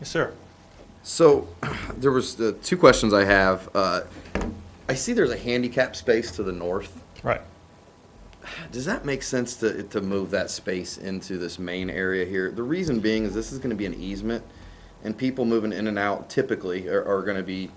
Yes, sir. So, there was the two questions I have. Uh, I see there's a handicap space to the north. Right. Does that make sense to, to move that space into this main area here? The reason being is this is gonna be an easement, and people moving in and out typically are, are gonna be,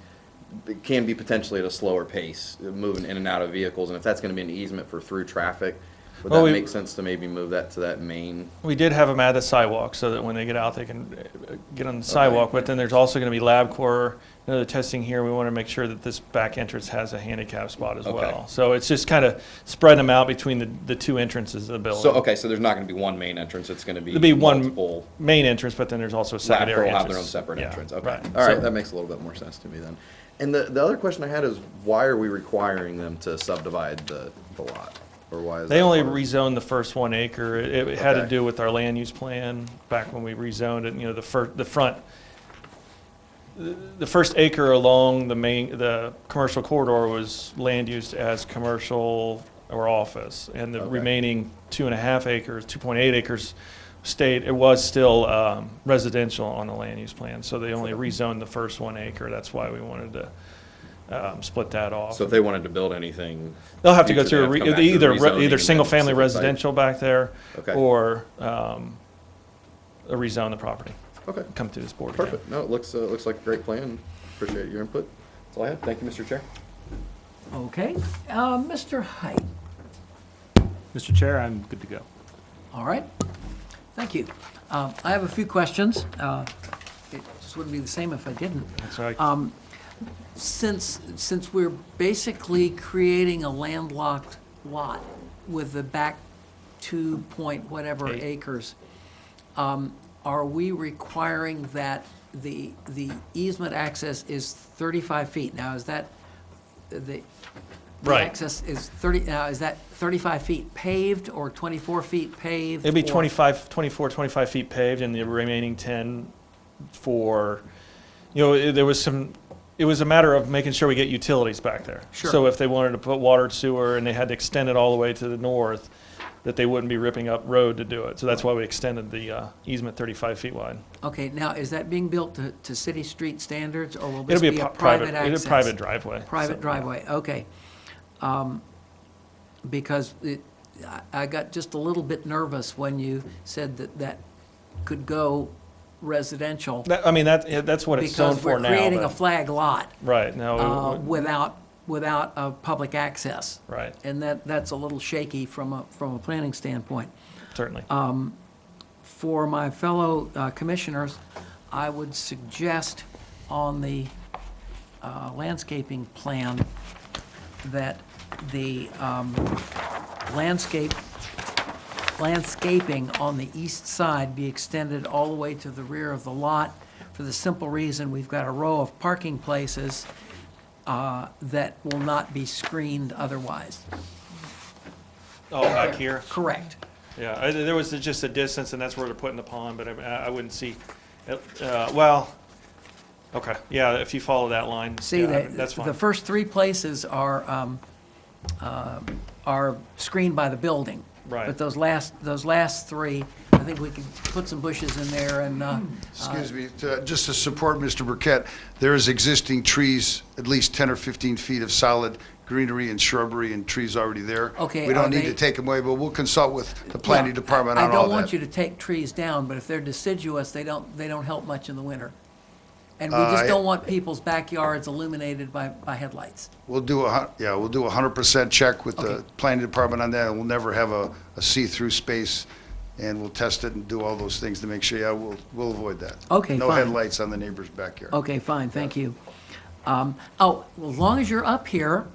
can be potentially at a slower pace, uh, moving in and out of vehicles, and if that's gonna be an easement for through traffic, would Well, that we- make sense to maybe move that to that main? We did have them at the sidewalk so that when they get out, they can uh, get on the sidewalk. But then there's also going to be LabCorp, another testing here. We want to make sure that this back entrance has a handicap spot as Okay. well. So it's just kind of spreading them out between the, the two entrances of the building. So, okay, so there's not gonna be one main entrance, it's gonna be There'll be one multiple. main entrance, but then there's also a Lab secondary Pro entrance. have their own separate Yeah, entrance, okay. right. All So- right, that makes a little bit more sense to me then. And the, the other question I had is, why are we requiring them to subdivide the, the lot? Or why is that? They only part of- rezoned the first one acre. It it had to Okay. do with our land use plan back when we rezoned it, you know, the fir, the front, the the first acre along the main, the commercial corridor was land used as commercial or office. And the Okay. remaining two and a half acres, 2.8 acres stayed, it was still um, residential on the land use plan. So they only rezoned the first one acre. That's why we wanted to um, split that off. So if they wanted to build anything. They'll have to go future, through they'd a re- have to come back either, for re- rezoning and either then single-family specific site. residential back there, Okay. or um, rezone the property, Okay, come through this board again. perfect. No, it looks, uh, looks like a great plan. Appreciate your input. That's all I have. Thank you, Mr. Chair. Okay, uh, Mr. Height, Mr. Chair, I'm good to go. all right, thank you. Um, I have a few questions. Uh, It just wouldn't be the same if I didn't. So I- Since, since we're basically creating a landlocked lot with the back two point whatever Eight. acres, um, are we requiring that the, the easement access is thirty-five feet? Now, is that, the, the Right. access is 30, now, is that 35 feet paved or 24 feet paved? It'd be or- 25, 24, 25 feet paved and the remaining 10 for, you know, it- there was some, it was a matter of making sure we get utilities back there. Sure. So if they wanted to put water and sewer and they had to extend it all the way to the north, that they wouldn't be ripping up road to do it. So that's why we extended the uh, easement 35 feet wide. Okay, now, is that being built to, to city street standards, or will this It'll be be a a pu- private private, access? it'll be a private driveway. Private so- driveway, okay. Um, Because it, I, I got just a little bit nervous when you said that that could go residential. That- I mean, that, yeah, that's what it's zoned Because for we're now. Oh, creating then. a flag lot Right, no, uh, it- without, without uh, public access. right, And that, that's a little shaky from a, from a planning standpoint. certainly. uh, For my fellow uh, commissioners, I would suggest on the uh, landscaping plan that the um, landscape, landscaping on the east side be extended all the way to the rear of the lot for the simple reason we've got a row of parking places uh, that will not be screened otherwise. Oh, back here? Correct. Yeah, I- there was just a distance, and that's where they're putting the pond, but I I wouldn't see, uh, well, okay, yeah, if you follow that line, See, yeah, I the, mean, that's the fine. first three places are, um, uh, are screened by the building. Right. But those last, those last three, I think we could put some bushes in there and, uh, Hmm. Excuse me, to- just to support Mr. Burkett, there is existing trees, at least 10 or 15 feet of solid greenery and shrubbery and trees already there. Okay, We are don't need they- to take them away, but we'll consult with the planning yeah, department on all that. I don't want you to take trees down, but if they're deciduous, they don't, they don't help much in the winter. And we just Uh, don't want people's backyards illuminated by, by headlights. We'll do a, hun- yeah, we'll do a 100% check with the Okay. planning department on that, and we'll never have a, a see-through space, and we'll test it and do all those things to make sure, yeah, we'll, we'll avoid that. Okay, No fine. headlights on the neighbor's backyard. Okay, fine, thank you. Um, Oh, well, as long as you're up here,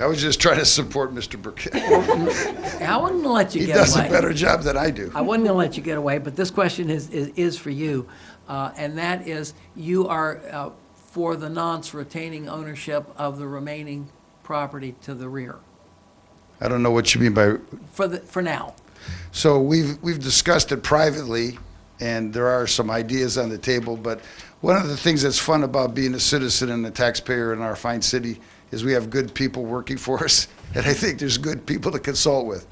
I was just trying to support Mr. Burkett. I wouldn't let you He get away. does a better job than I do. I wasn't going to let you get away, but this question is, is, is for you. Uh, and that is, you are, uh, for the nonce retaining ownership of the remaining property to the rear, I don't know what you mean by for the, for now. So we've, we've discussed it privately, and there are some ideas on the table, but one of the things that's fun about being a citizen and a taxpayer in our fine city is we have good people working for us, and I think there's good people to consult with.